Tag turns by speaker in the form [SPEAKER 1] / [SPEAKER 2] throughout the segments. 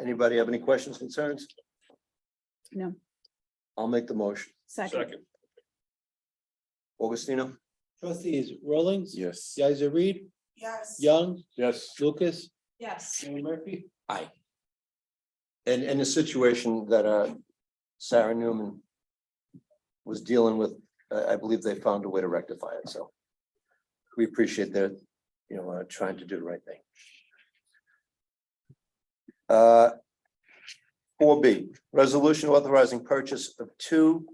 [SPEAKER 1] Anybody have any questions, concerns?
[SPEAKER 2] No.
[SPEAKER 1] I'll make the motion.
[SPEAKER 2] Second,
[SPEAKER 1] Augustino?
[SPEAKER 3] Trustees Rollins.
[SPEAKER 4] Yes.
[SPEAKER 3] Guys Reed,
[SPEAKER 5] Yes.
[SPEAKER 3] Young,
[SPEAKER 4] Yes.
[SPEAKER 3] Lucas,
[SPEAKER 5] Yes.
[SPEAKER 3] Mayor Murphy.
[SPEAKER 1] Aye. And, and the situation that, uh, Sarah Newman was dealing with, I, I believe they found a way to rectify it, so. We appreciate their, you know, uh, trying to do the right thing. Uh, four B, resolution authorizing purchase of two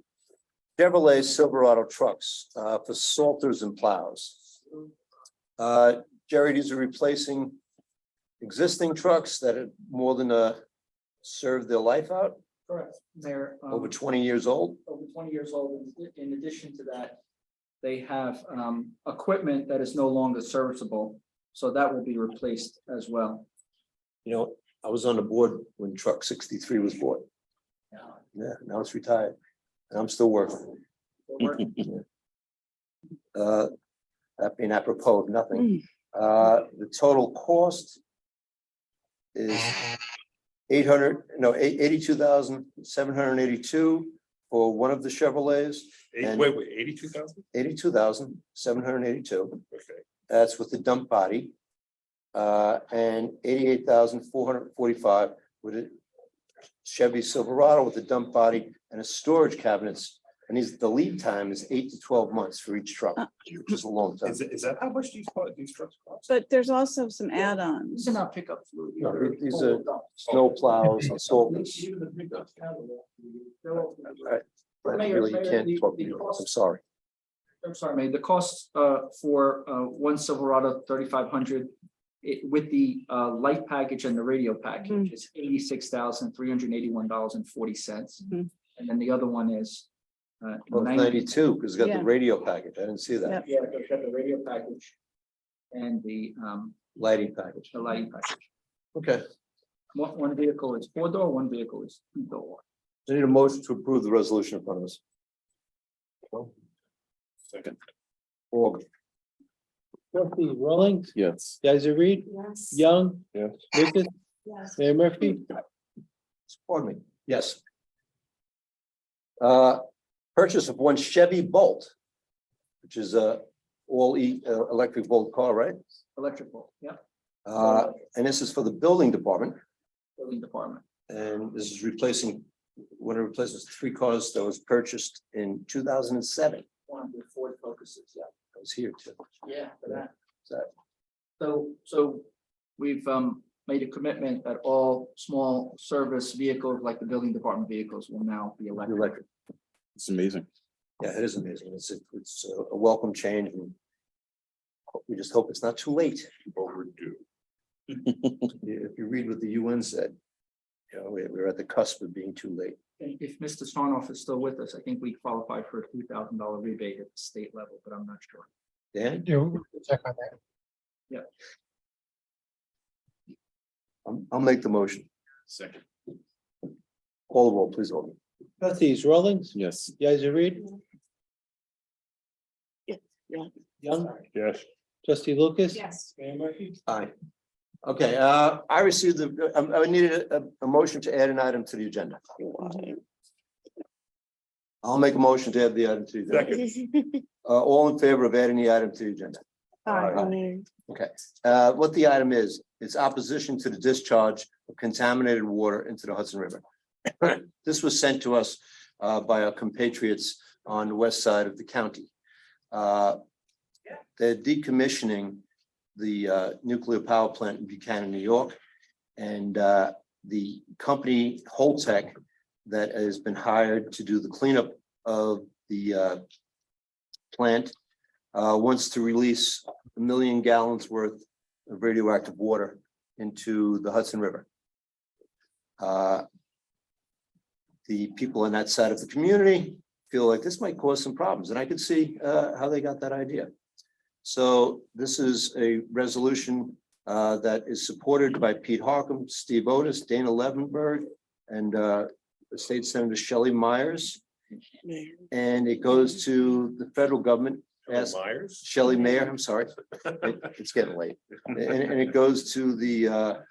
[SPEAKER 1] Chevrolet Silverado trucks, uh, for salters and plows. Uh, Jerry, these are replacing existing trucks that have more than uh served their life out,
[SPEAKER 6] Correct. They're um,
[SPEAKER 1] over twenty years old.
[SPEAKER 6] over twenty years old. In- In addition to that, they have um, equipment that is no longer serviceable. So that will be replaced as well.
[SPEAKER 1] You know, I was on the board when truck sixty-three was bought. Yeah, now it's retired. And I'm still working. Uh, that being apropos of nothing, uh, the total cost is eight hundred, no, eight, eighty-two thousand, seven hundred and eighty-two for one of the Chevrolets,
[SPEAKER 4] Eight,
[SPEAKER 1] And-
[SPEAKER 4] wait, wait, eighty-two thousand?
[SPEAKER 1] eighty-two thousand, seven hundred and eighty-two.
[SPEAKER 4] Okay.
[SPEAKER 1] That's with the dump body. Uh, and eighty-eight thousand four hundred and forty-five with a Chevy Silverado with a dump body and a storage cabinets. And these, the lead time is eight to twelve months for each truck, which is a long time.
[SPEAKER 4] Is, it- is that how much these, part- these trucks cost?
[SPEAKER 2] but there's also some add-ons.
[SPEAKER 6] These are not pickup fluid.
[SPEAKER 1] No,
[SPEAKER 6] They're
[SPEAKER 1] these
[SPEAKER 6] total
[SPEAKER 1] are-
[SPEAKER 6] dump.
[SPEAKER 1] Snow plows and salters.
[SPEAKER 6] Even the pickup catalog, they're all-
[SPEAKER 1] Right. I Really, you can't talk to you. I'm sorry.
[SPEAKER 6] I'm sorry, Mayor, the cost uh for uh one Silverado thirty-five hundred. It with the uh light package and the radio package is eighty-six thousand three hundred eighty-one dollars and forty cents.
[SPEAKER 2] Mhm.
[SPEAKER 6] And then the other one is uh
[SPEAKER 1] Well,
[SPEAKER 6] ninety.
[SPEAKER 1] ninety-two, because it's got
[SPEAKER 2] Yeah.
[SPEAKER 1] the radio package. I didn't see that.
[SPEAKER 2] Yep.
[SPEAKER 6] Yeah, they've got the radio package. And the um
[SPEAKER 1] Lighting package.
[SPEAKER 6] the lighting package.
[SPEAKER 1] Okay.
[SPEAKER 6] One one vehicle is four door, one vehicle is two door.
[SPEAKER 1] I need a motion to approve the resolution in front of us.
[SPEAKER 4] Second.
[SPEAKER 1] Or
[SPEAKER 3] Trustees Rollins,
[SPEAKER 4] Yes.
[SPEAKER 3] Guys Reed,
[SPEAKER 5] Yes.
[SPEAKER 3] Young.
[SPEAKER 4] Yes.
[SPEAKER 3] Lucas,
[SPEAKER 5] Yes.
[SPEAKER 3] Mayor Murphy.
[SPEAKER 1] Pardon me, yes. Uh, purchase of one Chevy Bolt, which is a all E uh, electric Bolt car, right?
[SPEAKER 6] Electrical, yeah,
[SPEAKER 1] Uh, and this is for the building department,
[SPEAKER 6] building department.
[SPEAKER 1] and this is replacing, one of replaces three cars that was purchased in two thousand and seven.
[SPEAKER 6] One of the Ford focuses, yeah.
[SPEAKER 1] I was here too.
[SPEAKER 6] Yeah, for that.
[SPEAKER 1] So-
[SPEAKER 6] So, so we've um made a commitment that all small service vehicles, like the building department vehicles, will now be electric.
[SPEAKER 1] Electric.
[SPEAKER 4] It's amazing.
[SPEAKER 1] Yeah, it is amazing. It's, it's a welcome change and we just hope it's not too late.
[SPEAKER 4] Overdue.
[SPEAKER 1] If you read what the UN said, you know, we- we're at the cusp of being too late.
[SPEAKER 6] And if Mr. Sarnoff is still with us, I think we qualify for a two thousand dollar rebate at the state level, but I'm not sure.
[SPEAKER 1] Dan?
[SPEAKER 3] Check on that.
[SPEAKER 1] I'll, I'll make the motion.
[SPEAKER 4] Second.
[SPEAKER 1] Call the roll, please, Alden.
[SPEAKER 3] Trustees Rollins,
[SPEAKER 4] Yes.
[SPEAKER 3] Guys Reed.
[SPEAKER 2] Yeah, yeah.
[SPEAKER 3] Young,
[SPEAKER 4] Yes.
[SPEAKER 3] trustee Lucas.
[SPEAKER 5] Yes.
[SPEAKER 3] Mayor Murphy.
[SPEAKER 1] Aye. Okay, uh, I received the, um, I, I needed a, a motion to add an item to the agenda. I'll make a motion to add the item to the agenda. Uh, all in favor of adding the item to the agenda?
[SPEAKER 2] Aye.
[SPEAKER 1] Uh, what the item is, it's opposition to the discharge of contaminated water into the Hudson River. This was sent to us uh, by our compatriots on the west side of the county. Uh, They're decommissioning the uh, nuclear power plant in Buchanan, New York. And uh, the company Holtec that has been hired to do the cleanup of the uh, plant uh, wants to release a million gallons worth of radioactive water into the Hudson River. Uh, The people on that side of the community feel like this might cause some problems, and I could see uh, how they got that idea. So this is a resolution uh, that is supported by Pete Harkam, Steve Otis, Dana Levenberg, and uh, State Senator Shelley Myers. And it goes to the federal government, Yes.
[SPEAKER 4] Myers?
[SPEAKER 1] Shelley Mayer, I'm sorry. It- It's getting late. And, and it goes to the, uh,